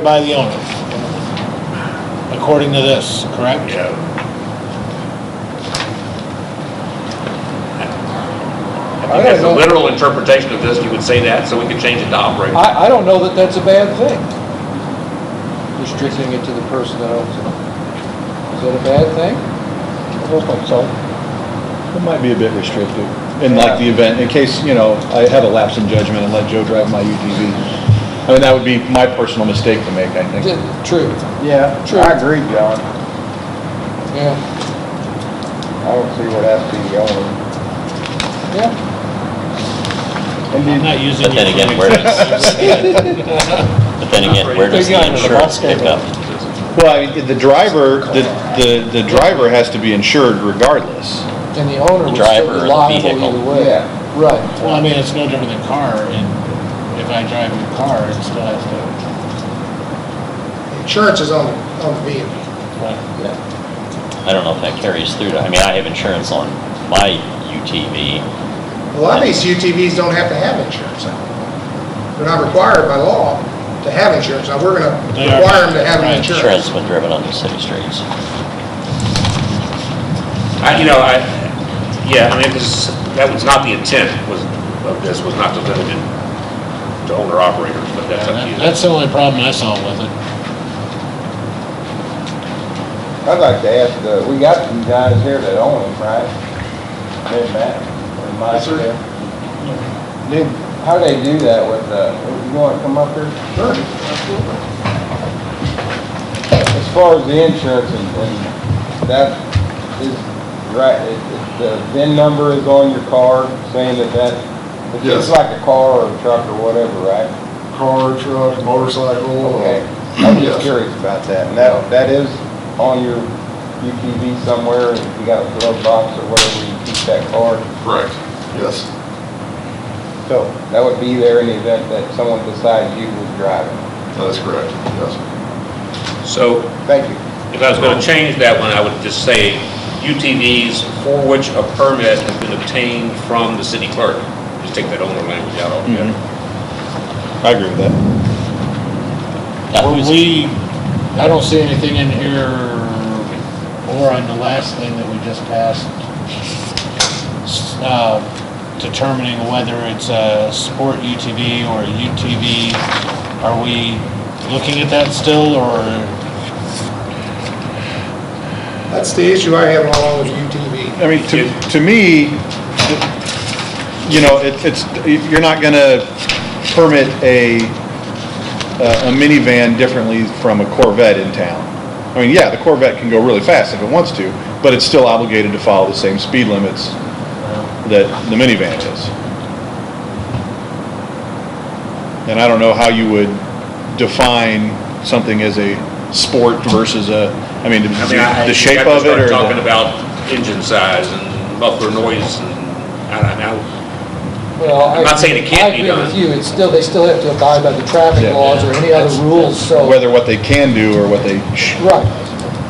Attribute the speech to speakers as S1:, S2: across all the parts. S1: by the owner, according to this, correct?
S2: Yeah.
S3: I
S2: If you had the
S3: don't know.
S2: literal interpretation of this, you would say that, so we could change it to operate.
S3: I, I don't know that that's a bad thing, restricting it to the person that owns it. Is that a bad thing? I don't think so.
S4: It might be a bit restrictive, in like the event, in case, you know, I have a lapse in judgment and let Joe drive my UTV. I mean, that would be my personal mistake to make, I think.
S3: Yeah, True,
S5: Yeah,
S3: True.
S5: I agree, John.
S3: yeah,
S5: I don't see what has to be the owner.
S3: yeah.
S1: I'm not using it.
S6: But then again, where does- But then again, where does
S1: Big guy
S6: the
S1: in the
S6: insurance
S1: box
S6: pick
S1: came
S6: up?
S4: Well, I mean, the driver, the, the, the driver has to be insured regardless.
S3: And the owner
S6: The
S3: was
S6: driver
S3: still
S6: or
S3: be liable
S6: the vehicle.
S3: either way.
S5: Yeah.
S3: Right.
S1: Well, I mean, it's no different than car, and if I drive a car, it still has to,
S7: Insurance is on, on the vehicle.
S1: right,
S6: I don't know if that carries through to, I mean, I have insurance on my UTV.
S7: A lot of these UTVs don't have to have insurance. on them. They're not required by law to have insurance. Now, we're gonna
S1: They are.
S7: require them to have
S1: Right,
S7: insurance.
S6: Insurance been driven on the city streets.
S2: I, you know, I, yeah, I mean, this, that was not the intent was, of this, was not to limit it to owner operators, but that's up to you.
S1: that's the only problem I saw with it.
S5: I'd like to ask, uh, we got some guys here that own them, right? They're Matt and Mike.
S7: Yes, sir.
S5: there. Dude, how they do that with, uh, you wanna come up here?
S7: Sure.
S5: As far as the insurance and, and that is right, it, it, the VIN number is on your car saying that that, it's just
S8: Yes.
S5: like a car or a truck or whatever, right?
S8: car, truck, motorcycle.
S5: Okay, I'm just
S8: Yes.
S5: curious about that, and that, that is on your UTV somewhere, if you got a glove box or whatever, you keep that card.
S8: Correct, yes.
S5: So that would be there in the event that someone besides you was driving.
S8: That is correct, yes.
S2: So
S5: Thank you.
S2: if I was going to change that one, I would just say UTVs for which a permit has been obtained from the city clerk. Just take that owner language out altogether.
S4: I agree with that.
S6: Now,
S1: Were
S6: who's-
S1: we, I don't see anything in here, or on the last thing that we just passed, s- uh, determining whether it's a sport UTV or a UTV, are we looking at that still, or?
S7: That's the issue I have along with UTV.
S4: I mean, to, to me, you know, it- it's, you're not gonna permit a, a minivan differently from a Corvette in town. I mean, yeah, the Corvette can go really fast if it wants to, but it's still obligated to follow the same speed limits that the minivan is. And I don't know how you would define something as a sport versus a, I mean,
S2: I mean, I,
S4: the
S2: you
S4: shape
S2: have to
S4: of it
S2: start
S4: or the...
S2: talking about engine size and muffler noise and, I don't know.
S3: Well, I.
S2: I'm not saying it can't
S3: I
S2: be
S3: agree
S2: done.
S3: with you, it's still, they still have to abide by the traffic
S4: Yeah.
S3: laws or any other rules, so.
S4: whether what they can do or what they sh-
S3: Right.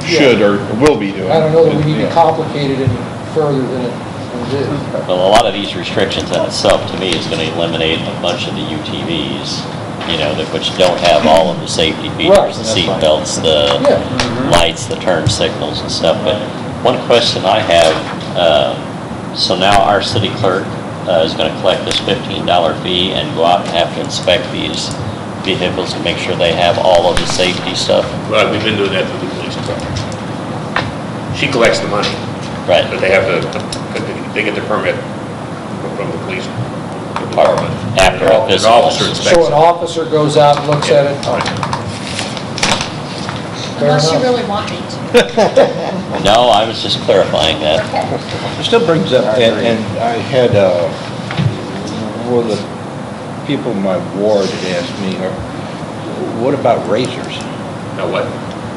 S4: should or will be doing.
S3: I don't know that we need to
S4: Yeah.
S3: complicate it any further than it than it is.
S6: Well, a lot of these restrictions in itself, to me, is gonna eliminate a bunch of the UTVs, you know, that, which don't have all of the safety
S3: Right,
S6: features, the
S3: that's
S6: seat
S3: fine.
S6: belts, the
S3: Yeah. mm-hmm.
S6: lights, the turn signals and stuff. But one question I have, uh, so now our city clerk uh, is gonna collect this fifteen dollar fee and go out and have to inspect these vehicles and make sure they have all of the safety stuff,
S2: Well, we've been doing that through the police department. She collects the money,
S6: right?
S2: but they have to, they get the permit from the police department.
S6: After a
S2: An
S6: physical.
S2: officer inspects
S3: So an
S2: it.
S3: officer goes out and looks at it, oh, Fair
S9: Unless you
S3: enough.
S9: really want me to.
S6: No, I was just clarifying that.
S9: Okay.
S5: It still brings up, and, and I had, uh, well, the people in my ward asked me, uh, what about razors?
S2: Now what?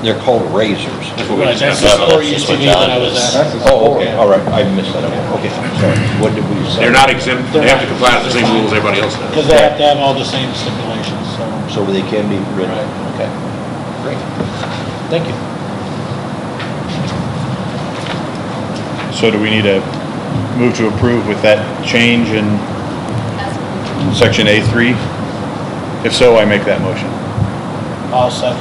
S5: They're called razors.
S2: That's what we
S1: Right, that's
S2: just
S1: the
S2: have.
S6: discussed.
S1: sport UTV that I was at.
S5: Oh, okay, all right, I missed that, okay, I'm sorry, what did we say?
S2: They're not exempt, they have to comply with the same rules everybody else does.
S1: Because they have to have all the same stipulations, so.
S5: So they can be ridden, okay.
S1: Thank you.
S4: So do we need to move to approve with that change in
S9: That's-
S4: section A3? If so, I make that motion.
S1: I'll second.